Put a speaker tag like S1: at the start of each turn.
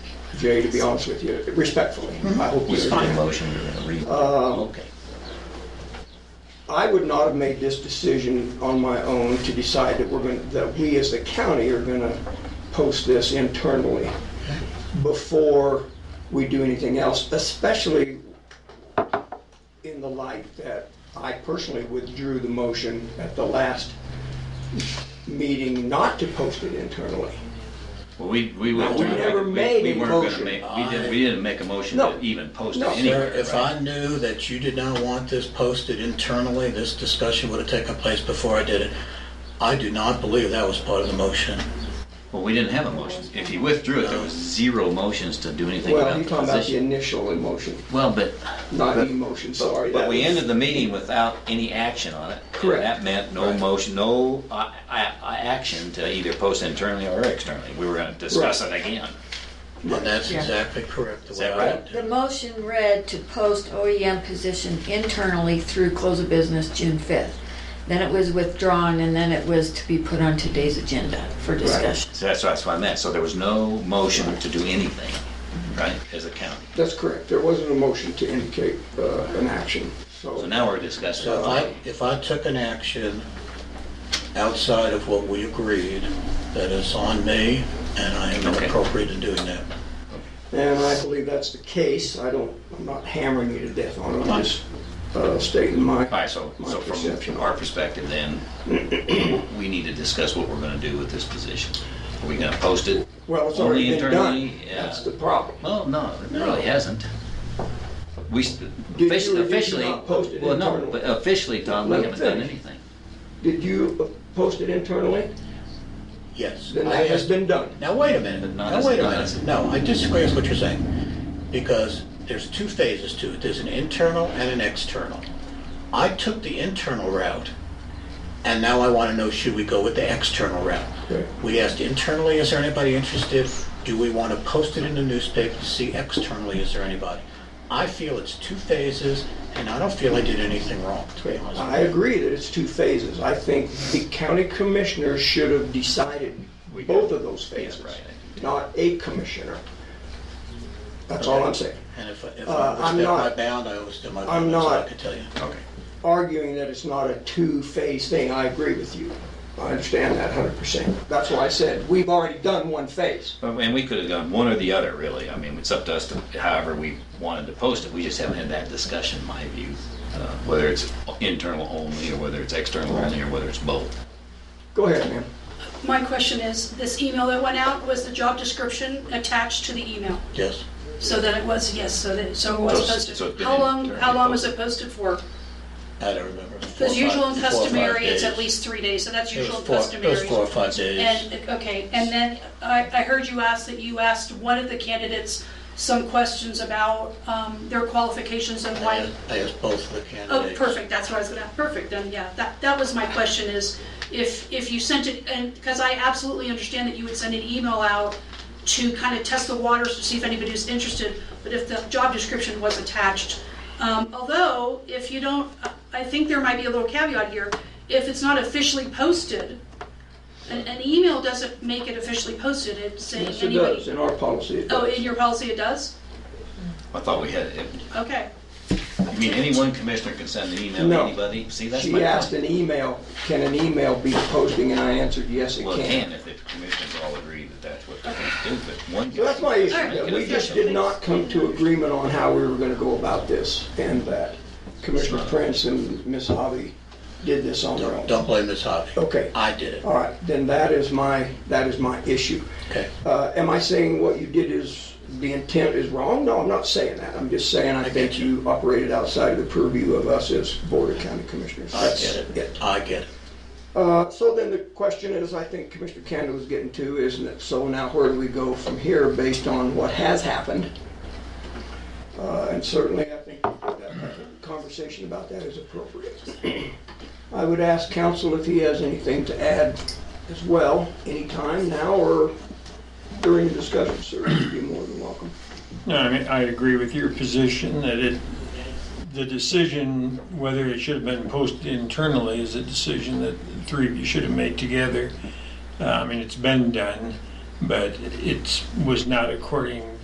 S1: Jay, to be honest with you, respectfully. I hope you
S2: Is there a
S1: understand.
S2: motion you're gonna read?
S1: Um,
S2: Okay.
S1: I would not have made this decision on my own to decide that we're going, that we as the county are going to post this internally before we do anything else, especially in the light that I personally withdrew the motion at the last meeting not to post it internally.
S3: Well, we, we went
S1: We
S3: through.
S1: never made a
S3: We weren't
S1: motion.
S3: gonna make, we didn't, we didn't make a motion
S1: No.
S3: to even post it
S1: No.
S3: anywhere,
S4: Sir,
S3: right?
S4: if I knew that you did not want this posted internally, this discussion would have taken place before I did it. I do not believe that was part of the motion.
S3: Well, we didn't have a motion. If he withdrew it, there was zero motions to do anything
S1: Well,
S3: about
S1: you're
S3: the
S1: talking about the
S3: position.
S1: initial emotion,
S3: Well, but,
S1: not emotion, sorry.
S3: but
S1: that
S3: we
S1: was-
S3: ended the meeting without any action on it. and
S1: Correct.
S3: That meant no motion, no uh, uh, uh, action to either post internally or externally. We were gonna discuss it again.
S4: And that's exactly correct. the
S3: Is
S4: way
S3: that
S4: I
S3: right?
S4: would do it.
S5: The motion read to post OEM position internally through close of business June 5th. Then it was withdrawn, and then it was to be put on today's agenda for discussion.
S3: So that's, that's what I meant. So there was no motion to do anything, right, as a county.
S1: That's correct. There wasn't a motion to indicate uh, an action,
S3: So
S1: so.
S3: now we're discussing.
S4: So if I, if I took an action outside of what we agreed, that is on me, and I am
S3: Okay.
S4: inappropriate in doing that.
S1: And I believe that's the case. I don't, I'm not hammering you to death on it. I'm just uh, stating my.
S3: All right, so,
S1: my
S3: so
S1: perception.
S3: from our perspective then, we need to discuss what we're gonna do with this position. Are we gonna post it?
S1: Well, it's
S3: Only
S1: already been done.
S3: internally, yeah.
S1: That's the problem.
S3: Well, no, it really hasn't. We, s-
S1: you or did
S3: officially,
S1: you
S3: officially,
S1: not post it
S3: well, no,
S1: internally?
S3: but officially, Tom, we
S1: Let him
S3: haven't done
S1: finish.
S3: anything.
S1: Did you post it internally?
S4: Yes.
S1: Then
S4: I
S1: that has
S4: asked-
S1: been done.
S4: Now, wait a minute.
S3: Not
S4: Now,
S3: as-
S4: wait a
S3: not as-
S4: minute. No, I disagree with what you're saying. Because there's two phases to it. There's an internal and an external. I took the internal route, and now I want to know, should we go with the external route?
S1: Okay.
S4: We asked internally, is there anybody interested? Do we want to post it in the newspaper to see externally, is there anybody? I feel it's two phases, and I don't feel I did anything wrong, to be honest.
S1: I agree that it's two phases. I think the county commissioner should have decided
S3: We
S1: both
S3: got-
S1: of those
S3: yeah,
S1: phases,
S3: right.
S1: not a commissioner. That's all I'm saying.
S4: And if I- if
S1: Uh,
S4: I
S1: I'm
S4: was my
S1: not-
S4: bound, I was my
S1: I'm
S4: bound, so I
S1: not-
S4: could tell you.
S3: Okay.
S1: arguing that it's not a two-phase thing, I agree with you. I understand that 100%. That's why I said, we've already done one phase.
S3: And we could have done one or the other, really. I mean, it's up to us to, however we wanted to post it. We just haven't had that discussion, in my view. uh, Whether it's internal only, or whether it's external only, or whether it's both.
S1: Go ahead, ma'am.
S6: My question is, this email that went out, was the job description attached to the email?
S4: Yes.
S6: So that it was, yes, so that, so it was
S3: So- so it's
S6: posted.
S3: been
S6: How long, how
S3: internally
S6: long was it posted for?
S4: I don't remember. Four or
S6: Because usual
S4: five-
S6: and
S4: four or five
S6: customary, it's
S4: days.
S6: at least three days, so that's
S4: It was
S6: usual and
S4: four- It was
S6: customary.
S4: four or five days.
S6: And, okay, and then I, I heard you ask that you asked one of the candidates some questions about um, their qualifications and
S4: I
S6: why.
S4: asked- I asked both of the
S6: Oh,
S4: candidates.
S6: perfect, that's what I was gonna, perfect, then, yeah, that, that was my question is, if, if you sent it, and, because I absolutely understand that you would send an email out to kind of test the waters to see if anybody's interested, but if the job description was attached. Um, although, if you don't, I think there might be a little caveat here, if it's not officially posted, an, an email doesn't make it officially posted, it's saying
S1: Yes, it
S6: anybody.
S1: does, in our policy it
S6: Oh,
S1: does.
S6: in your policy it does?
S3: I thought we had, it.
S6: Okay,
S3: I mean, any one commissioner can send an email to
S1: No.
S3: anybody. See, that's my
S1: She asked
S3: point.
S1: an email, can an email be posting, and I answered, yes, it
S3: Well, it
S1: can.
S3: can if the commissioners all agree that that's what they're going to do, but one.
S1: So that's my issue, that
S3: Alright.
S1: we just did not come to agreement on how we were gonna go about this, and that Commissioner Prince and Ms. Hobby did this on their
S4: Don't-
S1: own.
S4: Don't blame Ms. Hobby.
S1: Okay.
S4: I did it.
S1: All right, then that is my, that is my issue.
S4: Okay.
S1: Uh, Am I saying what you did is, the intent is wrong? No, I'm not saying that. I'm just saying I think
S4: get
S1: you operated outside of the purview of us as Board of County Commissioners.
S4: I
S1: That's
S4: get
S1: it.
S4: it. I get it.
S1: Uh, So then the question is, I think Commissioner Canada was getting to, isn't it, so now where do we go from here based on what has happened? Uh, And certainly, I think that conversation about that is appropriate. I would ask council if he has anything to add as well, anytime now or during the discussion, sir, you'd be more than welcome.
S7: No, I mean, I agree with your position that it, the decision whether it should have been posted internally is a decision that the three of you should have made together. Uh, I mean, it's been done, but it's, was not according